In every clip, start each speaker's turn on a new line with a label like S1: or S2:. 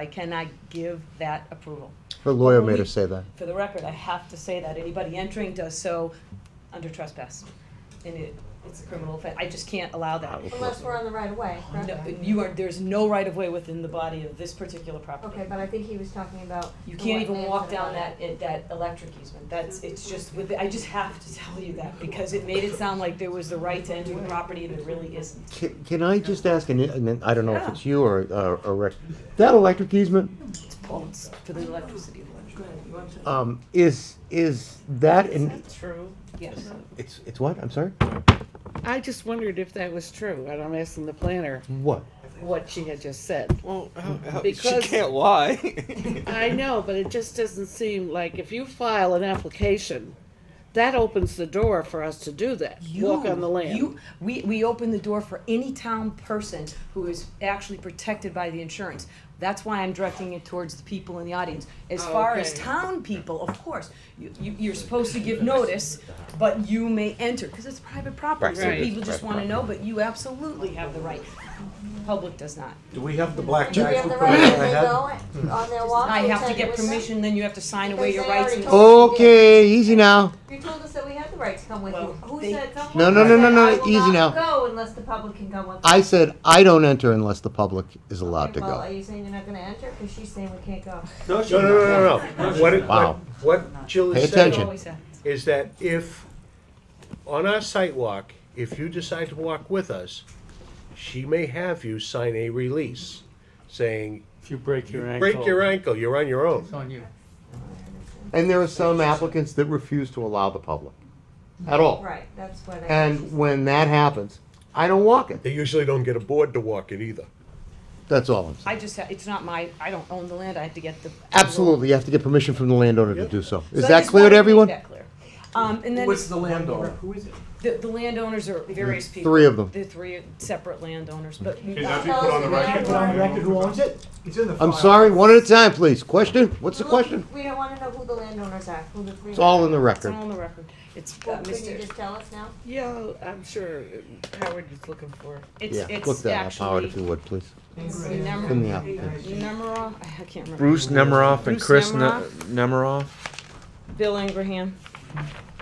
S1: I cannot give that approval.
S2: Her lawyer made her say that.
S1: For the record, I have to say that anybody entering does so under trespass. And it, it's a criminal offense. I just can't allow that.
S3: Unless we're on the right of way, correct?
S1: No, you are, there's no right of way within the body of this particular property.
S3: Okay, but I think he was talking about.
S1: You
S3: the
S1: can't even
S3: wetlands
S1: walk
S3: and the
S1: down
S3: wetland.
S1: that, it- that electric easement, that's, it's just, with, I just have to tell you that, because it made it sound like there was the right to enter the property, and there really isn't.
S2: Can, can I just ask, and it- and then I don't know if
S1: Yeah.
S2: it's you or, or, or Rick, that electric easement,
S1: It's bolts for the electricity. Go ahead, you want to?
S2: um, is, is that in,
S4: True.
S1: Yes.
S2: it's, it's what, I'm sorry?
S4: I just wondered if that was true, and I'm asking the planner
S2: What?
S4: what she had just said.
S5: Well, how, how,
S4: Because-
S5: she can't lie.
S4: I know, but it just doesn't seem like if you file an application, that opens the door for us to do that, walk on the land.
S1: You, we, we open the door for any town person who is actually protected by the insurance. That's why I'm directing it towards the people in the audience. As
S4: Oh,
S1: far as
S4: okay.
S1: town people, of course, you, you, you're supposed to give notice, but you may enter, cause it's private property, so
S4: Right. Right.
S1: people just wanna know, but you absolutely have the right. Public does not.
S6: Do we have the black
S3: Do we
S6: bags
S3: have
S6: we
S3: the
S6: put on
S3: right
S6: our
S3: of way
S6: head?
S3: though, on their walk?
S1: I
S3: You
S1: have to
S3: said it
S1: get
S3: was-
S1: permission, then you have to sign away
S3: Because
S1: your
S3: they
S1: rights
S3: already
S1: and.
S3: told-
S2: Okay, easy now.
S3: You told us that we had the right to come with
S1: Well,
S3: you. Who
S1: they-
S3: said someone?
S2: No, no, no, no,
S3: said,
S2: no,
S3: "I will
S2: easy
S3: not
S2: now."
S3: Go unless the public can come with. us."
S2: I said, I don't enter unless the public is allowed
S3: Okay,
S2: to
S3: well, Are
S2: go.
S3: you saying you're not gonna enter? Cause she's saying we can't go.
S7: No, no, no, no, no. What, it-
S2: Wow.
S7: what, what Jill
S2: Pay
S7: is
S2: attention.
S7: saying
S1: Always have.
S7: is that if, on our sidewalk, if you decide to walk with us, she may have you sign a release saying,
S8: If you break your ankle.
S7: break your ankle, you're on your own.
S8: It's on you.
S2: And there are some applicants that refuse to allow the public at all.
S3: Right, that's what I.
S2: And when that happens, I don't walk it.
S7: They usually don't get a board to walk it either.
S2: That's all I'm saying.
S1: I just, ha- it's not my, I don't own the land, I have to get the.
S2: Absolutely, you have to get permission from the landowner to do so.
S1: So
S2: Is
S1: I
S2: that
S1: just
S2: clear
S1: wanted
S2: to
S1: make
S2: everyone?
S1: that clear. Um, and then.
S6: What's the landowner?
S1: The, the landowners are various
S2: Three
S1: people.
S2: of them.
S1: The three separate landowners, but
S3: that be put on the record?
S6: who owns it? It's in the
S2: I'm
S6: file.
S2: sorry, one at a time, please. Question? What's the
S3: Look,
S2: question?
S3: We don't wanna know who the landowners are, who the three.
S2: It's all in the
S1: it's
S2: record.
S1: all on the record. It's uh,
S3: Well, couldn't you
S1: Mr.
S3: just tell us now?
S4: Yeah, I'm sure Howard is looking for.
S1: It's,
S2: Yeah,
S1: it's
S2: look that up, Howard, if you
S1: actually
S2: would, please. In the
S1: Nemer,
S2: application.
S1: Nemeroff, I can't remember.
S5: Bruce Nemiroff and
S1: Bruce
S5: Chris
S1: Nemiroff.
S5: Nemiroff. Nemiroff.
S1: Bill Ingraham,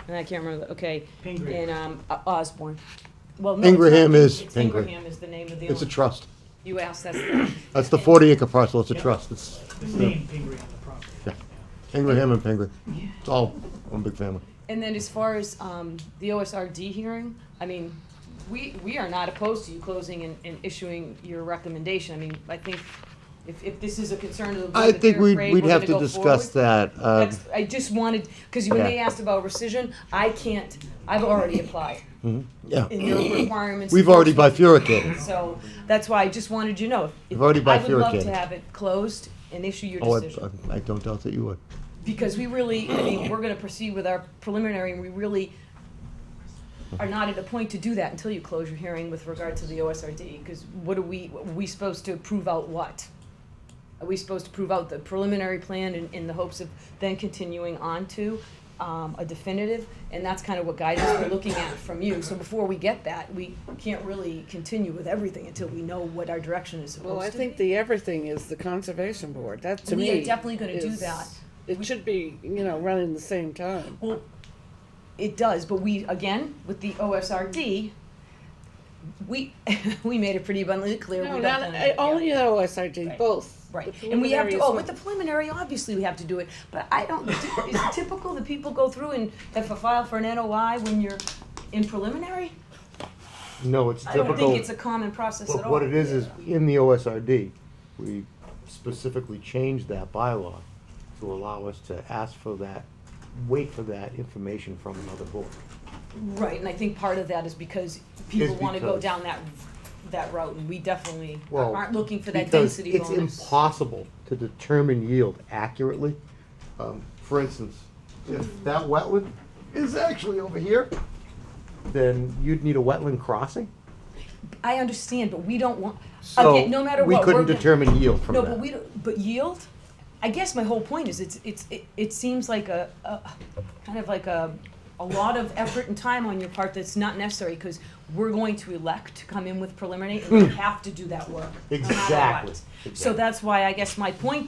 S1: and I can't remember, the okay, and, um, O- Osborne. Well, no, it's not-
S2: Ingraham is-
S1: it's
S2: Ingra-
S1: Ingraham is the name of the
S2: It's a
S1: owner.
S2: trust.
S1: You asked, that's the.
S2: That's the forty acre parcel, it's a trust. It's Ingraham and Penguin. It's all one big family.
S1: And then as far as um, the OSRD hearing, I mean, we, we are not opposed to you closing and, and issuing your recommendation. I mean, I think if, if this is a concern to the
S2: I
S1: board that
S2: think
S1: they're
S2: we'd,
S1: afraid we're
S2: we'd have
S1: gonna
S2: to
S1: go
S2: discuss
S1: forward.
S2: that. uh,
S1: That's, I just wanted, because when
S2: Yeah.
S1: they asked about rescission, I can't, I've already applied
S2: Yeah,
S1: in your requirements.
S2: we've already
S1: unfortunately.
S2: bifurcated.
S1: So that's why I just wanted you to know.
S2: We've already
S1: I would love
S2: bifurcated.
S1: to have it closed and issue your
S2: Oh,
S1: decision.
S2: I, I don't doubt that you would.
S1: because we really, I mean, we're gonna proceed with our preliminary, and we really are not at a point to do that until you close your hearing with regard to the OSRD, because what are we, are we supposed to prove out what? Are we supposed to prove out the preliminary plan in, in the hopes of then continuing on to, um, a definitive? And that's kind of what guidance we're looking at from you, so before we get that, we can't really continue with everything until we know what our direction is supposed to
S4: Well,
S1: be.
S4: I think the everything is the conservation board. That to
S1: We
S4: me.
S1: are definitely gonna do
S4: is-
S1: that.
S4: It should be, you know, running the same time.
S1: Well, it does, but we, again, with the OSRD, we, we made it pretty abundantly clear. we
S4: No,
S1: don't
S4: not,
S1: plan on
S4: I-
S1: it.
S4: only the OSRD, both.
S1: Right,
S4: The
S1: and we have to,
S4: preliminary
S1: oh,
S4: is
S1: with the preliminary, obviously we have to do it, but I don't, is it typical that people go through and have to file for an NOI when you're in preliminary?
S2: No, it's
S1: I don't think it's a common process at
S2: But
S1: all.
S2: what it is, is in the OSRD, we specifically changed that bylaw to allow us to ask for that, wait for that information from another board.
S1: Right, and I think part of that is because people wanna go
S2: because-
S1: down that, that route, and we definitely
S2: Well,
S1: aren't looking for that
S2: because
S1: density bonus.
S2: It's impossible to determine yield accurately. Um, For instance, if that wetland is actually over here, then you'd need a wetland crossing.
S1: I understand, but we don't want,
S2: So
S1: again, no matter what.
S2: We couldn't
S1: we're-
S2: determine yield from
S1: No,
S2: that.
S1: but we don't, but yield, I guess my whole point is it's, it's, it, it seems like a, a, kind of like a a lot of effort and time on your part that's not necessary, because we're going to elect to come in with preliminary, and we have to do that work. no matter what.
S2: Hmm. Exactly,
S1: So
S2: exactly.
S1: that's why I guess my point